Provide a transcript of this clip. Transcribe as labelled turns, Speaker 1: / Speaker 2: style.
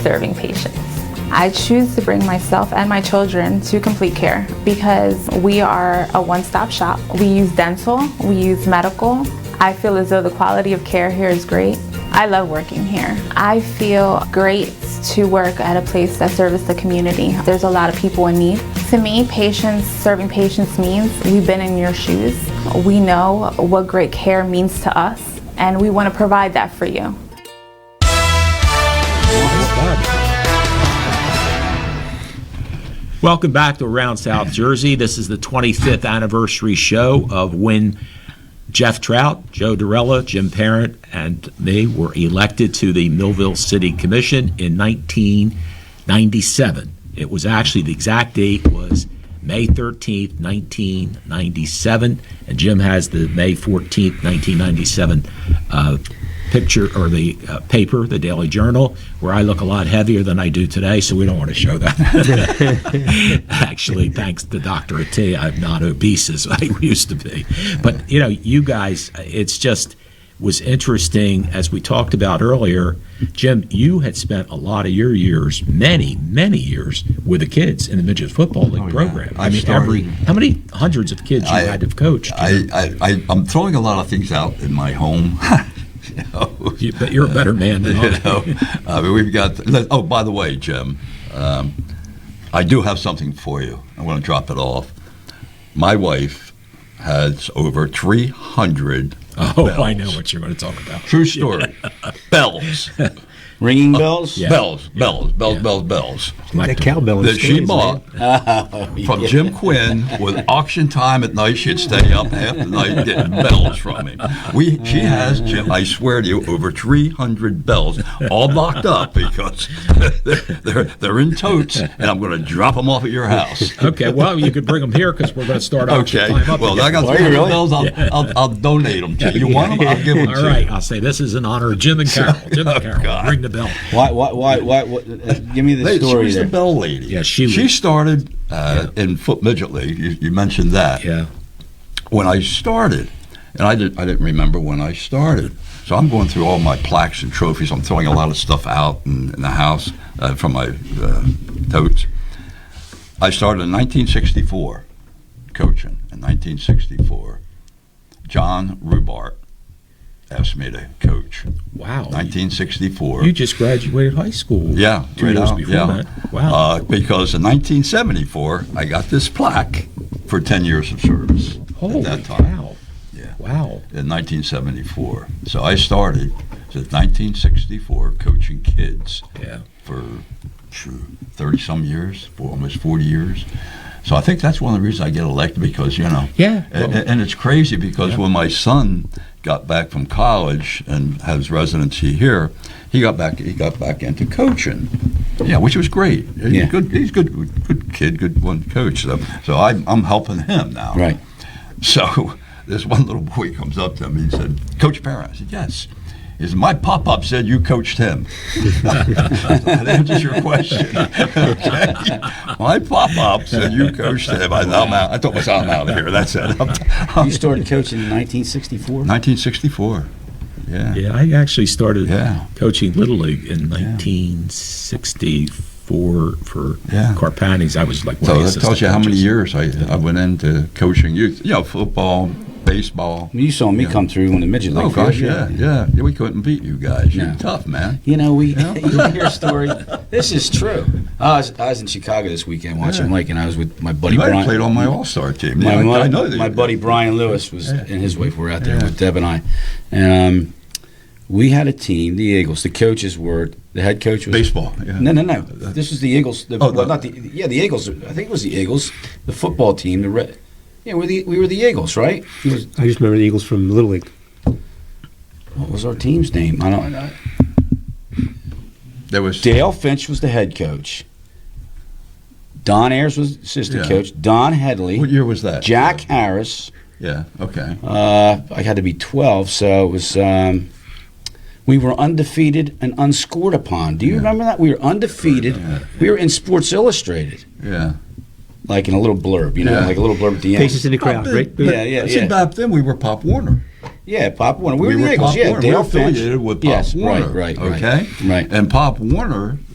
Speaker 1: serving patients. I choose to bring myself and my children to Complete Care because we are a one stop shop. We use dental, we use medical. I feel as though the quality of care here is great. I love working here. I feel great to work at a place that serves the community. There's a lot of people in need. To me, patients serving patients means we've been in your shoes. We know what great care means to us, and we want to provide that for you.
Speaker 2: Welcome back to Around South Jersey. This is the 25th anniversary show of when Jeff Trout, Joe Durella, Jim Parent, and me were elected to the Millville City Commission in 1997. It was actually the exact date was May 13th, 1997, and Jim has the May 14th, 1997 uh, picture or the uh, paper, the Daily Journal, where I look a lot heavier than I do today, so we don't want to show that. Actually, thanks to Dr. Atia, I'm not obese as I used to be. But, you know, you guys, it's just was interesting as we talked about earlier. Jim, you had spent a lot of your years, many, many years with the kids in the midget football league
Speaker 3: Oh, yeah.
Speaker 2: program. I,
Speaker 3: I
Speaker 2: mean,
Speaker 3: started-
Speaker 2: every how many hundreds of kids you
Speaker 3: I-
Speaker 2: had to have coached?
Speaker 3: I, I, I, I'm throwing a lot of things out in my home. you know,
Speaker 2: You- but you're a better man than
Speaker 3: you
Speaker 2: I.
Speaker 3: know. I mean, we've got. let- oh, by the way, Jim, um, I do have something for you. I'm going to drop it off. My wife has over 300.
Speaker 2: Oh, I
Speaker 3: bells.
Speaker 2: know what you're going to talk about.
Speaker 3: True story. bells,
Speaker 4: Ringing bells?
Speaker 2: Yeah.
Speaker 3: bells, bells, bells, bells, bells.
Speaker 2: Like
Speaker 5: That cowbell in
Speaker 3: That she
Speaker 5: Philly's,
Speaker 3: bought from Jim Quinn with auction time at night. She'd stay up half the night getting bells from him. We she has Jim. I swear to you, over three hundred bells, all locked up because they're, they're they're in totes, and I'm going to drop them off at your house.
Speaker 2: Okay, well, you could bring them here because we're going to start auction
Speaker 3: Okay.
Speaker 2: time up
Speaker 3: Well,
Speaker 2: again.
Speaker 3: I got
Speaker 4: Why,
Speaker 3: three hundred
Speaker 4: really?
Speaker 3: bells. I'll, I'll I'll donate them to you. You want them? I'll give them to
Speaker 2: All
Speaker 3: you. oh,
Speaker 2: right, I'll say this is in honor of Jim and Carol. Jim and Carol,
Speaker 3: God.
Speaker 2: ring the bell.
Speaker 4: Why, why, why, why, what, uh, give me the
Speaker 3: They- she
Speaker 4: story
Speaker 3: was
Speaker 4: there.
Speaker 3: the bell lady.
Speaker 2: Yeah, she
Speaker 3: she
Speaker 2: was-
Speaker 3: started uh, in foot midget league. You, you mentioned that.
Speaker 2: Yeah,
Speaker 3: when I started, and I didn't, I didn't remember when I started. So I'm going through all my plaques and trophies. I'm throwing a lot of stuff out in, in the house uh, from my uh, totes. I started in 1964, coaching in 1964. John Rubart asked me to coach.
Speaker 2: wow.
Speaker 3: 1964.
Speaker 2: Oh, You just graduated high school.
Speaker 3: Yeah,
Speaker 2: two
Speaker 3: right
Speaker 2: years
Speaker 3: on,
Speaker 2: before
Speaker 3: yeah.
Speaker 2: that. Wow.
Speaker 3: Uh, because in 1974, I got this plaque for 10 years of service.
Speaker 2: Holy
Speaker 3: at that time.
Speaker 2: cow.
Speaker 3: Yeah.
Speaker 2: Wow.
Speaker 3: in 1974. So I started since 1964 coaching kids
Speaker 2: Yeah.
Speaker 3: for 30 some years, for almost 40 years. So I think that's one of the reasons I get elected because, you know,
Speaker 2: Yeah.
Speaker 3: a- a- and, it's crazy because when my son got back from college and has residency here, he got back he got back into coaching. Yeah, which was great. He's
Speaker 4: Yeah.
Speaker 3: good he's good good kid, good one coach. So, so I I'm helping him now.
Speaker 4: Right.
Speaker 3: So this one little boy comes up to me and said, Coach Parent. I said, Yes. He said, My pop up said you coached him. that answers your question. okay. My pop up said you coached him. I, I'm out. I told myself I'm out of here. That's it. I'm- I'm-
Speaker 4: You started coaching in 1964?
Speaker 3: 1964. Yeah.
Speaker 2: Yeah, I actually started
Speaker 3: Yeah.
Speaker 2: coaching Little League in 1964 for
Speaker 3: Yeah.
Speaker 2: Carpanis. I was like one
Speaker 3: So
Speaker 2: of the
Speaker 3: that tells you how many
Speaker 2: assistant
Speaker 3: years I, I went into coaching youth. You know, football, baseball.
Speaker 4: You saw me come through on the midget league.
Speaker 3: Oh gosh,
Speaker 4: field,
Speaker 3: yeah, yeah, yeah. We couldn't beat you guys. You're
Speaker 4: No.
Speaker 3: tough, man.
Speaker 4: You know, we you hear a story. This is true. I was, I was in Chicago this weekend watching
Speaker 3: Yeah.
Speaker 4: Lake, and I was with my buddy
Speaker 3: You might
Speaker 4: Brian.
Speaker 3: have played on my All Star team.
Speaker 4: my,
Speaker 3: Yeah, I-
Speaker 4: mu-
Speaker 3: I know that
Speaker 4: my
Speaker 3: you-
Speaker 4: buddy Brian Lewis was
Speaker 3: Yeah.
Speaker 4: and his wife were out there
Speaker 3: Yeah.
Speaker 4: with Deb and I, and um, we had a team, the Eagles. The coaches were the head coach was
Speaker 3: Baseball. Yeah.
Speaker 4: No, no, no. This was the Eagles. The,
Speaker 3: Oh,
Speaker 4: well,
Speaker 3: the-
Speaker 4: not the yeah, the Eagles. I think it was the Eagles, the football team. The red. Yeah, we're the, we were the Eagles, right? It was-
Speaker 5: I just remember the Eagles from Little League.
Speaker 4: what was our team's name? I don't. know.
Speaker 3: There was
Speaker 4: Dale Finch was the head coach. Don Ayers was assistant
Speaker 3: Yeah.
Speaker 4: coach. Don
Speaker 3: What
Speaker 4: Headley.
Speaker 3: year was that?
Speaker 4: Jack Harris.
Speaker 3: Yeah. Okay.
Speaker 4: Uh, I had to be 12, so it was. Um, we were undefeated and unscored upon. Do you remember that? We were undefeated. We were in Sports Illustrated,
Speaker 3: Yeah.
Speaker 4: like in a little blurb, you know,
Speaker 3: Yeah.
Speaker 4: like a little blurb at the end.
Speaker 5: Faces in the crowd,
Speaker 3: Oh, But-
Speaker 5: right?
Speaker 3: but-
Speaker 4: Yeah, yeah,
Speaker 3: See,
Speaker 4: yeah.
Speaker 3: back then we were Pop Warner.
Speaker 4: Yeah, Pop Warner. We, were the
Speaker 3: Pop
Speaker 4: Eagles. Yeah,
Speaker 3: Warner.
Speaker 4: Dale
Speaker 3: we were
Speaker 4: Finch.
Speaker 3: affiliated with Pop
Speaker 4: yes,
Speaker 3: Warner.
Speaker 4: right, right, right.
Speaker 3: Okay.
Speaker 4: right.
Speaker 3: And Pop Warner